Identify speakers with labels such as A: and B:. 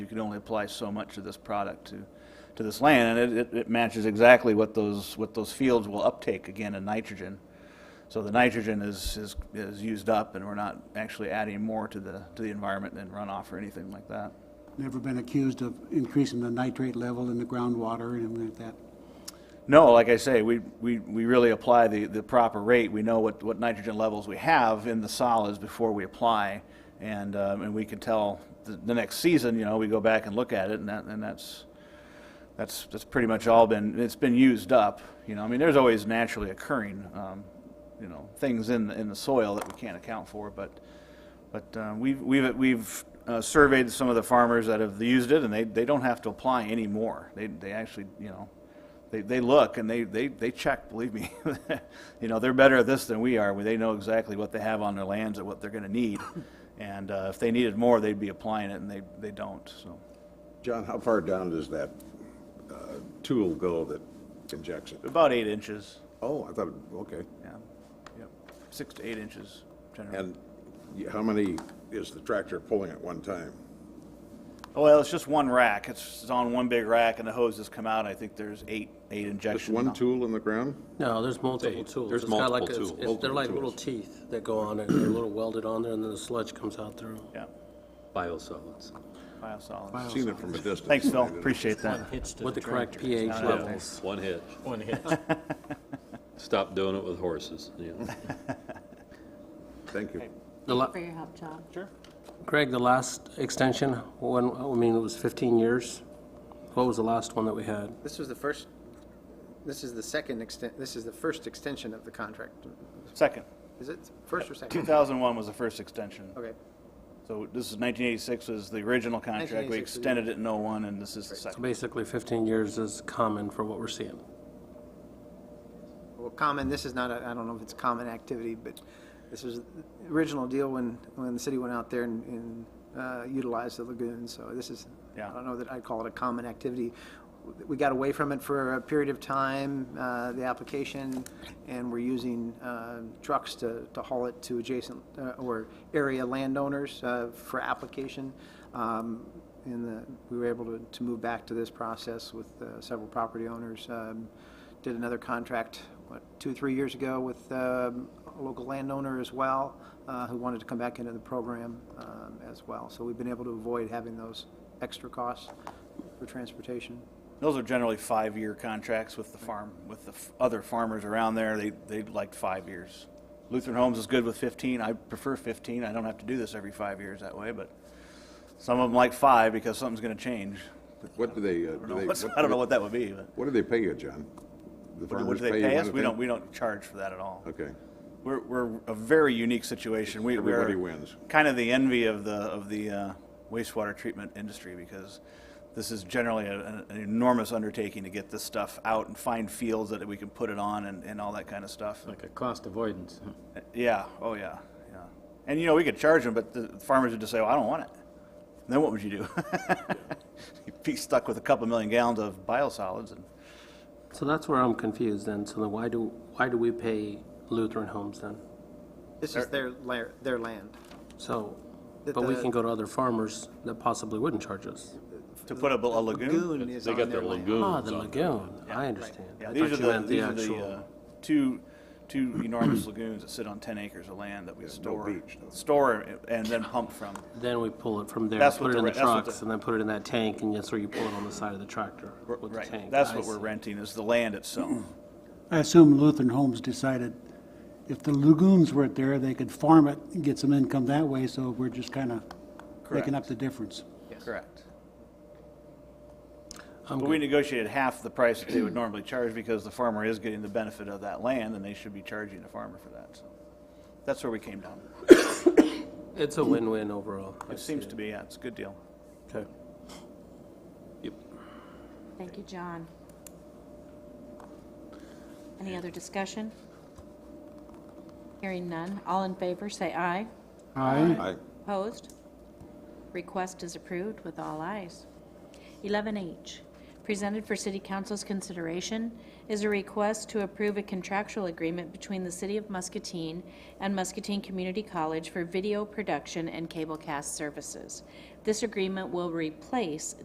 A: You can only apply so much of this product to, to this land, and it, it- it matches exactly what those, what those fields will uptake again in nitrogen. So the nitrogen is, is, is used up, and we're not actually adding more to the, to the environment than runoff or anything like that.
B: Never been accused of increasing the nitrate level in the groundwater and anything like that.
A: No, like I say, we, we, we really apply the, the proper rate. We know what, what nitrogen levels we have in the solids before we apply. And, um, and we can tell the, the next season, you know, we go back and look at it and that, and that's, that's, that's pretty much all been, it's been used up. You know, I mean, there's always naturally occurring, um, you know, things in, the- in the soil that we can't account for, but, but, uh, we've, we've, we've uh, surveyed some of the farmers that have used it and they, they don't have to apply anymore. They, they actually, you know, they, they look and they, they, they check, believe me. you know, they're better at this than we are, where they know exactly what they have on their lands and what they're gonna need. And, uh, if they needed more, they'd be applying it and they, they don't, so.
C: John, how far down does that uh, tool go that injects it?
A: About eight inches,
C: Oh, I thought, okay.
A: yeah, yep, six to eight inches generally.
C: And y- how many is the tractor pulling at one time?
A: Oh, Well, it's just one rack, it's, it's on one big rack and the hoses come out, I think there's eight, eight
C: Just
A: injections.
C: one tool in the ground?
D: No, there's multiple tools.
E: there's
D: It's got like
E: multiple
D: a- it's-
E: tools.
D: it's- They're like
C: Multiple
D: little teeth that go on it, they're little welded on there, and then the sludge comes out through.
A: Yeah,
E: biosolids.
A: biosolids.
C: Seen it from a distance.
A: Thanks, Phil, appreciate that.
D: With the correct pH levels.
E: One hitch. One hitch. Stop doing it with horses, you know.
C: Thank you.
D: The la-
F: for your help, John.
D: Greg, the last extension, when, I mean, it was 15 years. What was the last one that we had?
G: This was the first, this is the second extent, this is the first extension of the contract.
A: Second,
G: Is it first or
A: two
G: second?
A: thousand and one was the first extension.
G: Okay.
A: So this is 1986 was the original contract. We
G: 1986 was the-
A: extended it in '01, and this is the second.
D: Basically, 15 years is common for what we're seeing.
G: Well, common, this is not, a- I don't know if it's common activity, but this was the original deal when, when the city went out there and- and uh, utilized the lagoon. So this is,
A: Yeah.
G: I don't know that I'd call it a common activity. We got away from it for a period of time, uh, the application, and we're using uh, trucks to, to haul it to adjacent uh, or area landowners uh, for application. Um, And the- we were able to, to move back to this process with uh, several property owners. Um, Did another contract, what, two, three years ago with um, a local landowner as well, uh, who wanted to come back into the program um, as well. So we've been able to avoid having those extra costs for transportation.
A: Those are generally five-year contracts with the farm, with the f- other farmers around there. They, they like five years. Lutheran Homes is good with 15. I prefer 15. I don't have to do this every five years that way, but some of them like five because something's going to change.
C: What do they, uh,
A: I
C: do
A: don't know
C: they?
A: what's- I don't know what that would be, but
C: What do they pay you, John? The
A: what do- what
C: farmers
A: do they
C: you
A: pay us? We
C: anything?
A: don't, we don't charge for that at all.
C: Okay.
A: We're, we're a very unique situation. We, we're
C: Everybody wins.
A: Kind of the envy of the of the uh, wastewater treatment industry because this is generally a, an an enormous undertaking to get this stuff out and find fields that we can put it on and, and all that kind of stuff.
H: Like a cost avoidance.
A: Yeah. Oh yeah. Yeah. And you know we could charge them, but the farmers would just say, "Well, I don't want it." then what would you do? You'd be stuck with a couple million gallons of biosolids and.
D: So that's where I'm confused then. So then why do, why do we pay Lutheran Homes then?
G: This is their, la- their land.
D: So,
G: That
D: but we
G: the-
D: can go to other farmers that possibly wouldn't charge us.
A: To put up a, a lagoon?
G: is
E: They
G: on
E: got their
G: land.
E: lagoons
D: Ah, the
E: on.
D: lagoon. I understand.
A: Oh, Yeah,
D: I
A: these
D: thought
A: are
D: you
A: the,
D: meant
A: these are the,
D: actual-
A: uh, two, two enormous lagoons that sit on ten acres of land that we store.
C: beach, though.
A: Store and then pump from.
D: Then we pull it from there,
A: That's what
D: put it
A: the
D: in the
A: re- that's what
D: trucks,
A: the-
D: and then put it in that tank, and that's where you pull it on the side of the tractor with the
A: Right,
D: tank.
A: that's
D: I
A: what we're
D: see.
A: renting, is the land itself.
B: I assume Lutheran Homes decided if the lagoons weren't there, they could farm it and get some income that way, so we're just kind of making up the difference.
A: Correct.
D: I'm
A: But
D: good.
A: we negotiated half the price that they would normally charge because the farmer is getting the benefit of that land and they should be charging the farmer for that, so. That's where we came down.
D: It's a win-win overall. I
A: It seems to be, yeah, it's a good deal.
D: see. Okay.
F: Thank you, John. Any other discussion? Hearing none. All in favor, say aye.
C: I-
F: Opposed? Request is approved with all ayes. 11H, presented for City Council's consideration is a request to approve a contractual agreement between the City of Muscatine and Muscatine Community College for video production and cablecast services. This agreement will replace